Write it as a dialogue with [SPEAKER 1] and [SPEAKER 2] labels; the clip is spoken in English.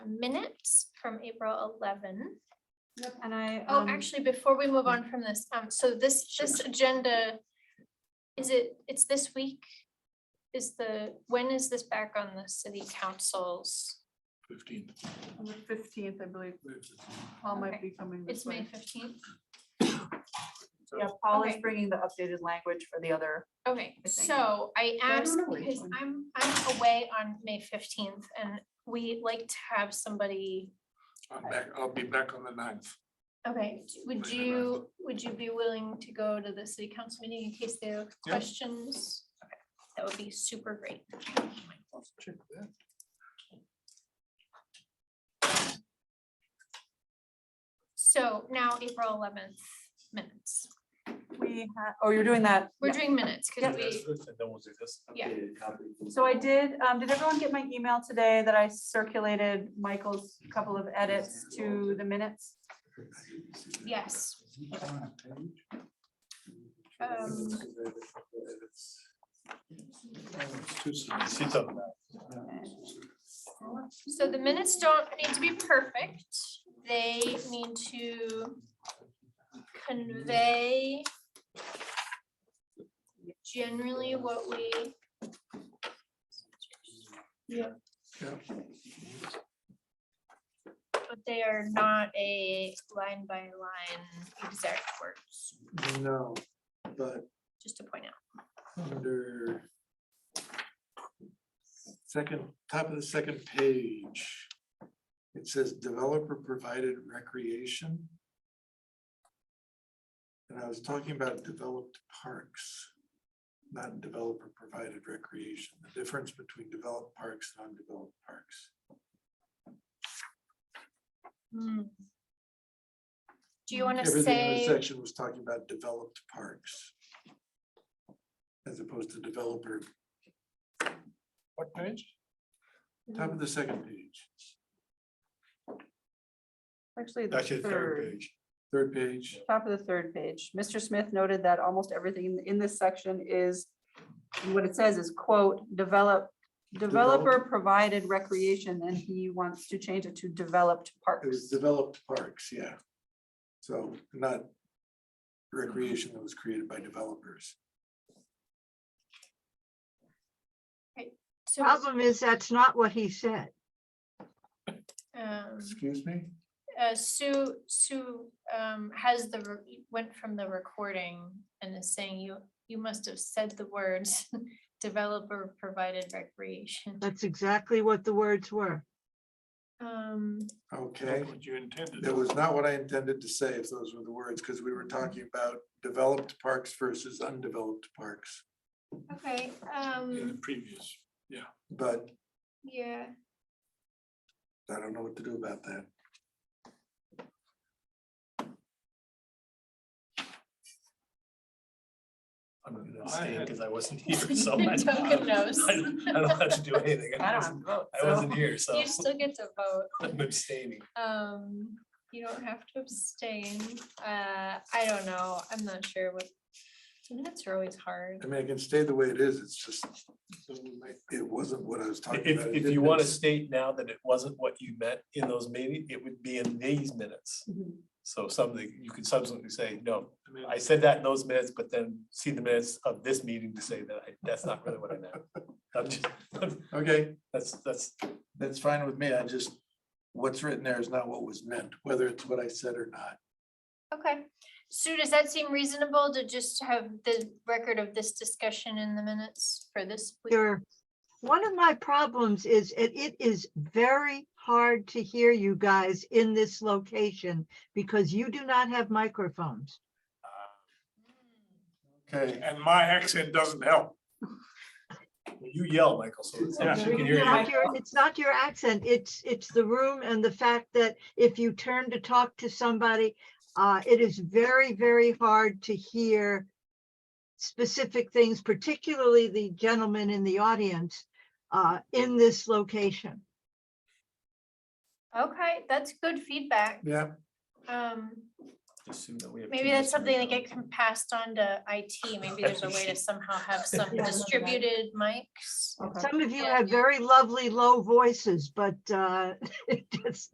[SPEAKER 1] minutes from April 11.
[SPEAKER 2] Yep, and I.
[SPEAKER 1] Oh,
[SPEAKER 2] um,
[SPEAKER 1] actually, before we move on from this, um, so this, this agenda, is it, it's this week? Is the, when is this back on the city council's?
[SPEAKER 3] Fifteenth.
[SPEAKER 2] On the fifteenth, I believe, Paul might
[SPEAKER 1] Okay.
[SPEAKER 2] be coming this
[SPEAKER 1] It's May
[SPEAKER 2] way.
[SPEAKER 1] fifteenth?
[SPEAKER 2] Yeah, Paul is
[SPEAKER 1] Okay.
[SPEAKER 2] bringing the updated language for the other.
[SPEAKER 1] Okay,
[SPEAKER 2] I think.
[SPEAKER 1] so I
[SPEAKER 2] I don't
[SPEAKER 1] asked
[SPEAKER 2] know which
[SPEAKER 1] because
[SPEAKER 2] one.
[SPEAKER 1] I'm, I'm away on May fifteenth and we like to have somebody.
[SPEAKER 3] I'm back, I'll be back on the ninth.
[SPEAKER 1] Okay, would
[SPEAKER 3] Right,
[SPEAKER 1] you, would you be willing to go to the city council meeting in case there are
[SPEAKER 3] Yeah.
[SPEAKER 1] questions? Okay, That would be super great.
[SPEAKER 3] Check that.
[SPEAKER 1] So now April eleventh minutes.
[SPEAKER 2] We had, oh, you're doing that.
[SPEAKER 1] We're
[SPEAKER 2] yeah.
[SPEAKER 1] doing minutes because we, Yeah.
[SPEAKER 4] Yeah.
[SPEAKER 2] So I did, um, did everyone get my email today that I circulated Michael's couple of edits to the minutes?
[SPEAKER 1] yes, Um,
[SPEAKER 3] Sit up.
[SPEAKER 1] so the minutes don't need to be perfect. They need to convey generally what we, but they are not a line by line exact words,
[SPEAKER 3] No, but
[SPEAKER 1] just to point out.
[SPEAKER 3] under second, top of the second page, it says developer provided recreation. And I was talking about developed parks, not developer provided recreation, the difference between developed parks and undeveloped parks.
[SPEAKER 1] Hmm. Do you want to
[SPEAKER 3] Everything in the
[SPEAKER 1] say,
[SPEAKER 3] section was talking about developed parks. As opposed to developer. What page? Top of the second page,
[SPEAKER 2] Actually, the
[SPEAKER 5] Actually, the third
[SPEAKER 2] third,
[SPEAKER 5] page.
[SPEAKER 3] third page,
[SPEAKER 2] top of the third page. Mr. Smith noted that almost everything in- in this section is, what it says is quote, develop, developer
[SPEAKER 3] Develop.
[SPEAKER 2] provided recreation, and he wants to change it to developed
[SPEAKER 3] it was
[SPEAKER 2] parks.
[SPEAKER 3] developed parks, yeah. So not recreation that was created by developers.
[SPEAKER 1] so,
[SPEAKER 6] Problem is, that's not what he said.
[SPEAKER 1] um,
[SPEAKER 3] Excuse me?
[SPEAKER 1] uh, Sue, Sue, um, has the, re- went from the recording and is saying you, you must have said the words developer provided recreation.
[SPEAKER 6] That's exactly what the words were.
[SPEAKER 1] Um,
[SPEAKER 3] Okay,
[SPEAKER 5] What you intended. Mm-hmm.
[SPEAKER 3] that was not what I intended to say if those were the words, because we were talking about developed parks versus undeveloped parks.
[SPEAKER 1] okay,
[SPEAKER 5] In the
[SPEAKER 1] um,
[SPEAKER 5] previous.
[SPEAKER 3] But
[SPEAKER 1] yeah,
[SPEAKER 3] I don't know what to do about that.
[SPEAKER 5] I'm gonna
[SPEAKER 3] I
[SPEAKER 5] abstain
[SPEAKER 3] had-
[SPEAKER 5] because I wasn't here, so. I don't-
[SPEAKER 1] Duncan knows.
[SPEAKER 5] I don't I don't have to do anything.
[SPEAKER 2] I don't have
[SPEAKER 5] wasn't-
[SPEAKER 2] to vote,
[SPEAKER 5] Um, I
[SPEAKER 2] so-
[SPEAKER 5] wasn't here, so
[SPEAKER 1] you still get to vote.
[SPEAKER 5] I'm abstaining.
[SPEAKER 1] Um, you don't have to abstain. Uh, I don't know. I'm not sure what, minutes are always hard.
[SPEAKER 3] I mean, I can stay the way it is, it's just, it wasn't what I was talking
[SPEAKER 5] If,
[SPEAKER 3] about.
[SPEAKER 5] if you want to state now that it wasn't what you meant in those meetings, it would be in these minutes.
[SPEAKER 2] Mhm.
[SPEAKER 5] So something, you can subsequently say, no, I said that in those minutes, but then see the minutes of this meeting to say that I, that's not really what I meant. I'm just,
[SPEAKER 3] Okay,
[SPEAKER 5] that's, that's,
[SPEAKER 3] that's fine with me, I just, what's written there is not what was meant, whether it's what I said or not.
[SPEAKER 1] Okay. Sue, does that seem reasonable to just have the record of this discussion in the minutes for this? week?
[SPEAKER 6] There, one of my problems is it, it is very hard to hear you guys in this location because you do not have microphones.
[SPEAKER 3] Okay,
[SPEAKER 5] And my accent doesn't help. You yell, Michael, so it's,
[SPEAKER 3] Yeah.
[SPEAKER 5] we can hear you.
[SPEAKER 6] It's not your- it's not your accent, it's, it's the room and the fact that if you turn to talk to somebody, uh, it is very, very hard to hear specific things, particularly the gentleman in the audience, uh, in this location.
[SPEAKER 1] Okay, that's good feedback.
[SPEAKER 3] yeah,
[SPEAKER 1] Um,
[SPEAKER 5] just assume that we have.
[SPEAKER 1] Maybe
[SPEAKER 5] two
[SPEAKER 1] that's
[SPEAKER 5] listeners
[SPEAKER 1] something that
[SPEAKER 5] now.
[SPEAKER 1] get com- passed on to IT. Maybe there's a way to somehow have some
[SPEAKER 6] Yeah.
[SPEAKER 1] distributed mics.
[SPEAKER 2] Okay.
[SPEAKER 6] Some of you
[SPEAKER 1] Yeah.
[SPEAKER 6] have very lovely low voices, but uh, it's